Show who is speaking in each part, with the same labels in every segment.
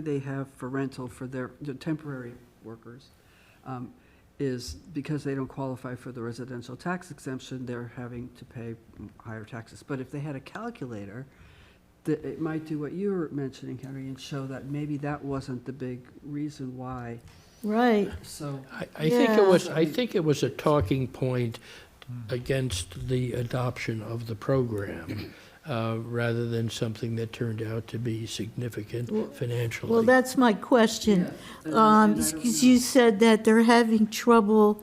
Speaker 1: they have for rental for their, the temporary workers, um, is because they don't qualify for the residential tax exemption, they're having to pay higher taxes. But if they had a calculator, that it might do what you were mentioning, Henry, and show that maybe that wasn't the big reason why,
Speaker 2: Right,
Speaker 1: so.
Speaker 3: I, I think it
Speaker 2: Yeah.
Speaker 3: was, I think it was a talking point against the adoption of the program, uh, rather than something that turned out to be significant financially.
Speaker 2: well, that's my question.
Speaker 1: Yeah.
Speaker 2: Um,
Speaker 1: And I don't
Speaker 2: because you said that they're having trouble,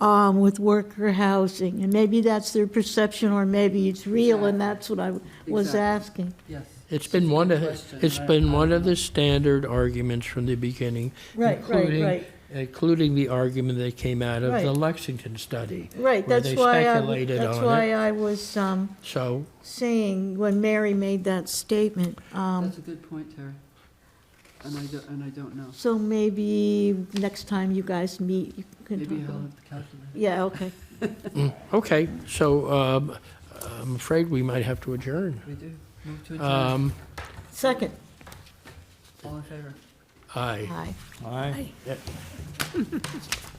Speaker 2: um, with worker housing, and maybe that's their perception, or maybe it's real, and that's what I was
Speaker 1: Exactly.
Speaker 2: asking.
Speaker 1: Yes.
Speaker 3: It's been one of,
Speaker 1: Question,
Speaker 3: it's
Speaker 1: I-
Speaker 3: been
Speaker 1: I
Speaker 3: one
Speaker 1: don't
Speaker 3: of
Speaker 1: know.
Speaker 3: the standard arguments from the beginning,
Speaker 2: Right, right,
Speaker 3: including-
Speaker 2: right,
Speaker 3: including the argument that came out of the
Speaker 2: Right.
Speaker 3: Lexington study.
Speaker 2: right,
Speaker 3: where
Speaker 2: that's
Speaker 3: they
Speaker 2: why I,
Speaker 3: speculated
Speaker 2: that's
Speaker 3: on
Speaker 2: why I was, um,
Speaker 3: So
Speaker 2: saying, when Mary made that statement, um,
Speaker 1: That's a good point, Terry. And I don't, and I don't know.
Speaker 2: so maybe next time you guys meet, you can
Speaker 1: Maybe
Speaker 2: talk
Speaker 1: I'll
Speaker 2: about.
Speaker 1: have to calculate.
Speaker 2: Yeah, okay.
Speaker 3: mm, Okay, so um, I'm afraid we might have to adjourn.
Speaker 1: We do. Move to adjourn.
Speaker 3: Um,
Speaker 2: Second,
Speaker 1: All in favor?
Speaker 3: Aye.
Speaker 2: aye.
Speaker 4: Aye.